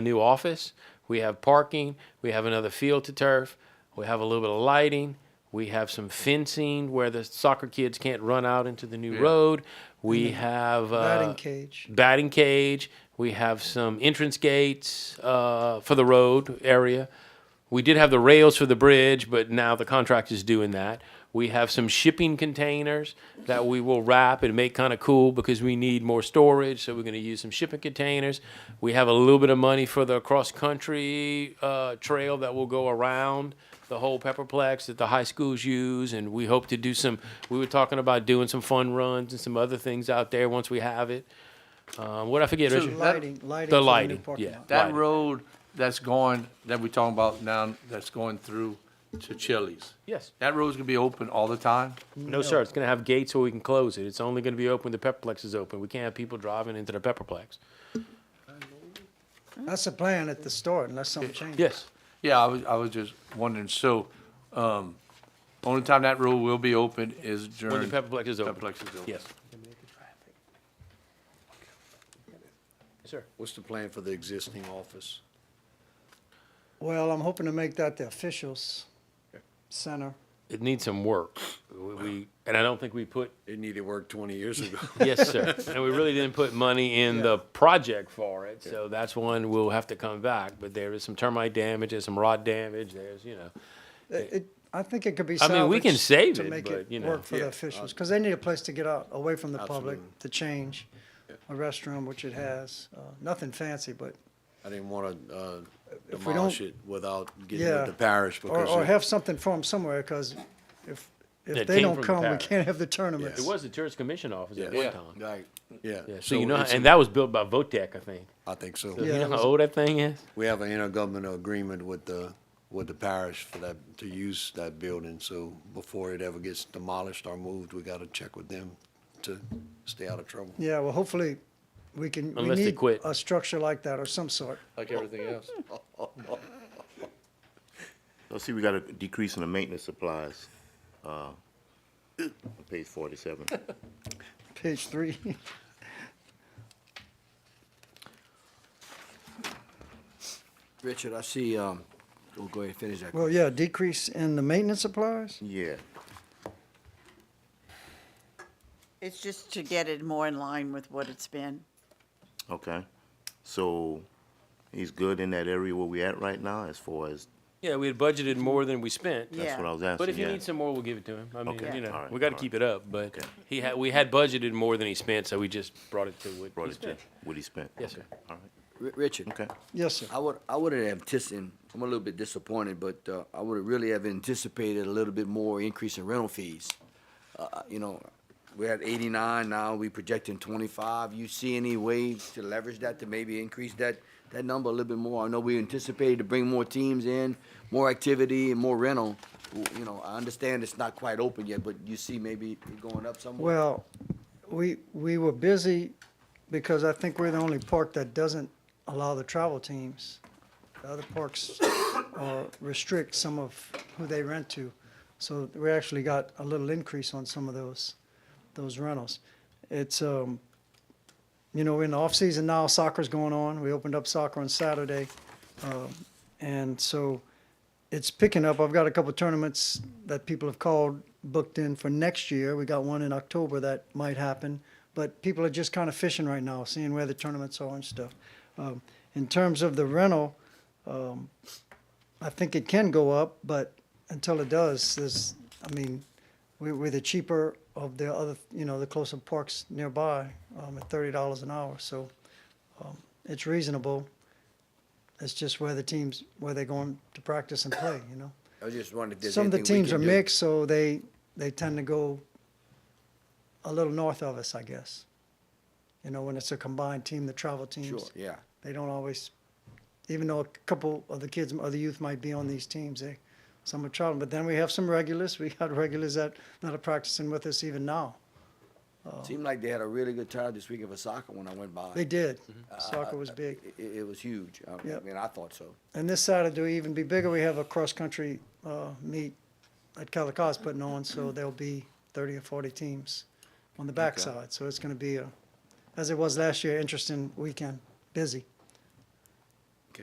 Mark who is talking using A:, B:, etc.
A: a new office. We have parking. We have another field to turf. We have a little bit of lighting. We have some fencing where the soccer kids can't run out into the new
B: Yeah.
A: road. We have uh,
C: batting cage.
A: batting cage. We have some entrance gates uh, for the road area. We did have the rails for the bridge, but now the contract is doing that. We have some shipping containers that we will wrap and make kind of cool because we need more storage. So we're going to use some shipping containers. We have a little bit of money for the cross country uh, trail that will go around the whole Pepperplex that the high schools use, and we hope to do some. We were talking about doing some fun runs and some other things out there once we have it. Um, what I forget,
B: So
A: Richard?
B: that-
C: Lighting, lighting.
A: the
C: for new
A: lighting,
C: parking
A: yeah.
C: lot.
A: Right.
B: That road that's going, that we talking about now, that's going through to Chili's.
A: Yes.
B: That road's gonna be open all the time?
A: No, sir. It's going to have gates where we can close it. It's only going to be open when the Pepperplex is open. We can't have people driving into the Pepperplex.
C: That's the plan at the start unless something changes.
A: Yes.
B: Yeah, I was, I was just wondering, so, um, only time that road will be open is during.
A: When the Pepperplex is open.
B: Pepperplex is open.
A: Yes. Sir.
D: What's the plan for the existing office?
C: Well, I'm hoping to make that the officials center.
A: It needs some work. We- We, and I don't think we put,
D: It needed work twenty years ago.
A: yes, sir. And we really didn't put money in the project for it, so that's one we'll have to come back. But there is some termite damage, there's some rod damage, there's, you know.
C: It, it- I think it could be
A: I mean, we can
C: salvaged
A: save
C: to
A: it,
C: make
A: but, you know,
C: Work for the
D: yeah, Uh,
C: officials, because they need a place to get out, away from the public,
D: Absolutely.
C: to change. A restroom, which it has, uh, nothing fancy, but,
D: I didn't wanna, uh,
C: don't-
D: demolish it without getting rid
C: Yeah.
D: of the parish
C: or,
D: because.
C: or
D: it-
C: have something for them somewhere, because if,
A: It
C: if they
A: came
C: don't
A: from the
C: come, we
A: parish.
C: can't have the tournaments.
A: It was the tourist commission office at one
D: Yeah.
B: Yeah.
A: time.
D: Right, yeah.
A: Yeah, so you know, how-
D: it's a-
A: and that was built by Votech, I think.
D: I think so.
A: You
C: Yeah.
A: know
C: it
A: how
C: was-
A: old that thing is?
D: We have an intergovernmental agreement with the, with the parish for that, to use that building, so before it ever gets demolished or moved, we gotta check with them to stay out of trouble.
C: Yeah, well, hopefully, we can, we
A: Unless they
C: need
A: quit.
C: a structure like that or some sort.
B: Like everything else.
E: Let's see, we got a decrease in the maintenance supplies, uh, on page forty-seven.
C: Page three.
F: Richard, I see, um, we'll go ahead and finish that.
C: Well, yeah, decrease in the maintenance supplies?
E: Yeah,
G: It's just to get it more in line with what it's been.
E: okay. So he's good in that area where we at right now as far as,
A: Yeah, we had budgeted more than we spent.
G: Yeah.
E: that's what I was asking, yeah.
A: But if you need some more, we'll give it to him. I mean,
E: Okay,
A: you know,
E: all right,
A: we got to
E: all right.
A: keep it up. But
E: Okay.
A: he had we had budgeted more than he spent, so we just brought it to what
E: Brought
A: he
E: it to
A: spent.
E: what he spent.
A: Yes,
E: Okay,
A: sir.
E: All right,
F: R- Richard.
E: okay.
C: Yes, sir.
F: I would, I would have anticipated, I'm a little bit disappointed, but, uh, I would have really have anticipated a little bit more increase in rental fees. Uh, you know, we're at eighty-nine now, we projecting twenty-five. You see any way to leverage that to maybe increase that, that number a little bit more? I know we anticipated to bring more teams in, more activity and more rental. W- You know, I understand it's not quite open yet, but you see maybe it going up somewhere?
C: Well, we, we were busy because I think we're the only park that doesn't allow the travel teams. The other parks uh, restrict some of who they rent to. So we actually got a little increase on some of those, those rentals. It's, um, you know, we're in the off-season now, soccer's going on. We opened up soccer on Saturday. Um, And so it's picking up. I've got a couple tournaments that people have called booked in for next year. We got one in October that might happen, but people are just kind of fishing right now, seeing where the tournaments are and stuff. Um, in terms of the rental, um, I think it can go up, but until it does, there's, I mean, we, we're the cheaper of the other, you know, the closer parks nearby um, at thirty dollars an hour, so um, it's reasonable. It's just where the teams where they're going to practice and play, you know.
F: I was just wondering if there's
C: Some of
F: anything
C: the
F: we
C: teams
F: can
C: are
F: do.
C: mixed, so they, they tend to go a little north of us, I guess. You know, when it's a combined team, the travel
F: Sure,
C: teams,
F: yeah.
C: they don't always, even though a couple of the kids, of the youth might be on these teams, they, some are traveling. But then we have some regulars, we got regulars that, that are practicing with us even now.
F: Seemed like they had a really good time this weekend for soccer when I went by.
C: Oh. They did.
F: Uh,
C: Soccer was big.
F: It, it was huge. I, I
C: Yep.
F: mean, I thought so.
C: And this Saturday will even be bigger. We have a cross-country uh, meet at Calicos putting on, so there'll be 30 or 40 teams on the backside. So it's going to be, a, as it was last year, interesting weekend, busy.